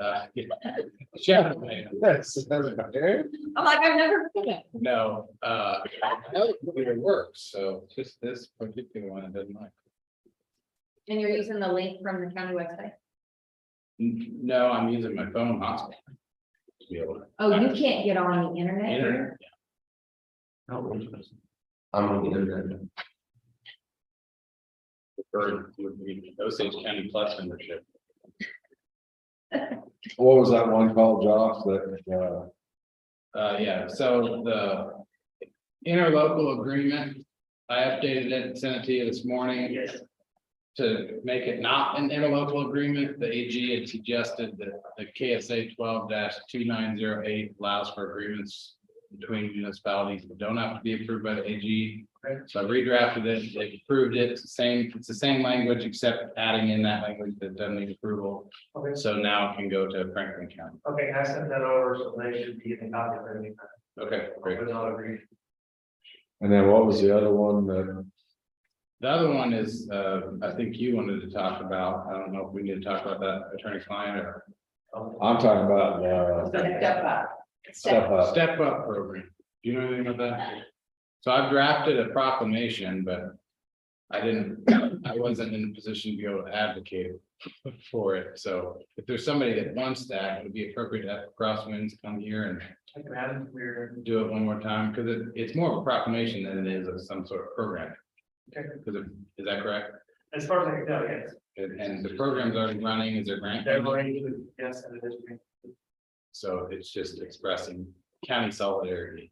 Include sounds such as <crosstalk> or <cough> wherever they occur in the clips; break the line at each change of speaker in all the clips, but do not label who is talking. Uh, <laughs> Chef, man,
Yes, it doesn't matter.
I'm like, I've never been it.
no, uh, I know it works, so just this particular one, I didn't like.
And you're using the link from the county website?
N- No, I'm using my phone hotspot. To be able to-
Oh, you can't get on the internet?
Internet.
I'm on the internet.
Preferred would be Osage County Plus membership.
What was that one called, Josh, that, uh,
Uh, yeah, so the interlocal agreement, I updated it, and sent it to you this morning. To make it not an interlocal agreement, the AG had suggested that the KSA twelve two nine zero eight allows for agreements. Between municipalities that don't have to be approved by the AG, so I redrafted it, they approved it, it's the same, it's the same language, except adding in that language that doesn't need approval.
Okay,
So now it can go to Franklin County.
okay, I sent that over, so they should be getting a copy of everything.
Okay, great.
But not agree.
and then what was the other one that?
The other one is, uh, I think you wanted to talk about, I don't know if we need to talk about that attorney client or
I'm talking about, uh,
Step up.
step up.
step up program. Do you know anything about that? So I've drafted a proclamation, but I didn't, I wasn't in a position to be able to advocate for it. So if there's somebody that wants that, it would be appropriate to have Crosswinds come here and
I can add it, we're,
do it one more time because it, it's more of a proclamation than it is of some sort of program.
Okay.
Because of- is that correct?
as far as I can tell, yes,
And and the program's already running, is there grant?
they're going to, yes, and it is. green.
So it's just expressing county solidarity.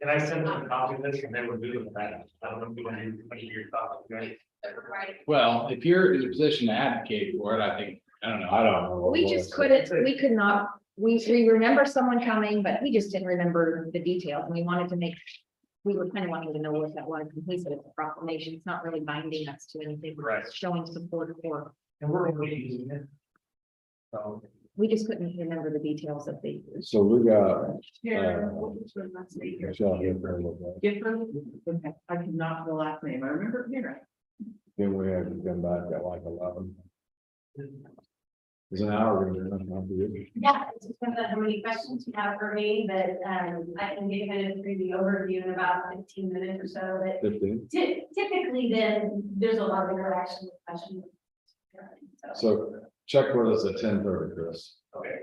And I sent them a copy of this and they were doing that. I don't know if you want to, what your thoughts, right?
Well, if you're in a position to advocate for it, I think, I don't know,
I
I
don't know. what
We
it
just
was.
couldn't, we could not, we, we remember someone coming, but we just didn't remember the details and we wanted to make. We were kind of wanting to know what that was, and he said it's a proclamation, it's not really binding us to anything, we're just showing support for,
And we're already using it. So.
we just couldn't remember the details of the.
So we got,
Yeah.
Michelle here for a little bit,
Different, I cannot the last name, I remember hearing.
then we had to come back at like eleven, it's an hour. and a half, not good.
Yeah, it just depends on how many questions you have for me, but um, I can get kind of through the overview in about fifteen minutes or so, but
Fifteen,
ty- typically then, there's a lot of interaction with questions. So,
so check with us at ten thirty, Chris,
Okay,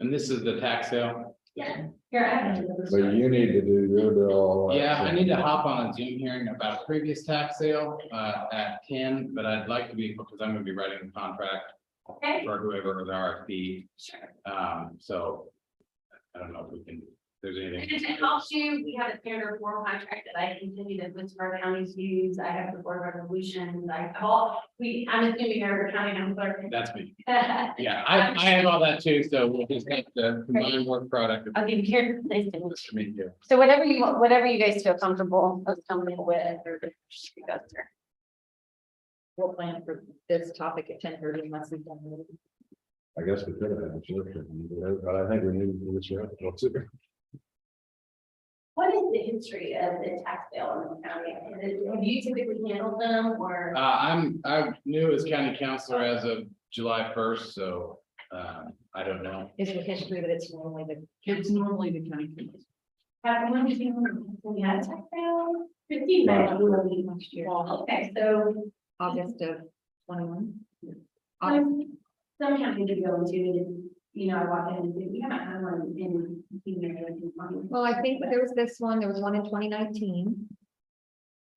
and this is the tax sale.
Yeah. here, I have.
but you need to do your bill. at
Yeah, I
10.
need to hop on a Zoom hearing about a previous tax sale uh at ten, but I'd like to be, because I'm gonna be writing the contract
Okay,
for whoever the RFP,
sure.
um, so. I don't know if we can, if there's anything.
And to help you, we have a standard form contract that I continue to Winsburg County's use. I have the board resolutions. I have all, we, I'm assuming every county, I'm clerk.
That's me. Yeah, I I have all that too, so we'll just have to combine work product.
<laughs> I'll give you your place.
Just for me here.
So whatever you, want, whatever you guys feel comfortable, comfortable with, or just go through.
We'll plan for this topic at ten thirty unless we've done. it.
I guess we could have had a church, but I think we need to do this. yeah, that's it.
What is the history of the tax sale in the county? Is it- Have you typically handled them or?
Uh, I'm, I'm new as county councilor as of July first, so, uh, I don't know.
Is it history that it's normally the
It's normally the county. commission.
Have one of you, when you had a tax sale? Fifteen,
No.
I will be next year. Okay, so
August of twenty-one? August,
um, some counties you go into, and, you know, I walk in and say, we haven't had one in, you know, in twenty.
well, I think there was this one, there was one in twenty nineteen.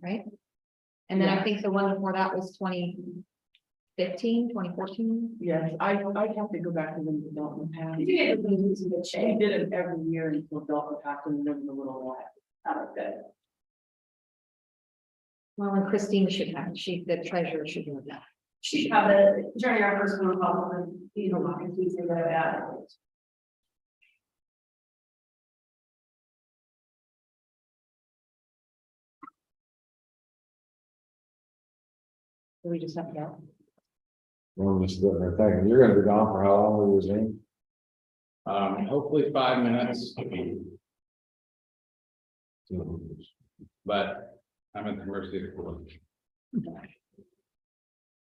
Right? And then I
Yeah.
think the one before that was 2015, 2014.
Yes, I, I have to go back to when Dalton passed.
You get to lose in good
They
shape.
did it every year until Dalton passed and then the little while.
Oh, good.
Well, and Christine should have, it. she, the treasurer should do that.
She should have the, during our first phone call, and, you know, walk and we say that about.
Do We just have to go.
Well, I'm just sitting there thinking, you're gonna be gone for how long, was it?
Um, hopefully five minutes,
Two minutes.
but I'm at the mercy of the court.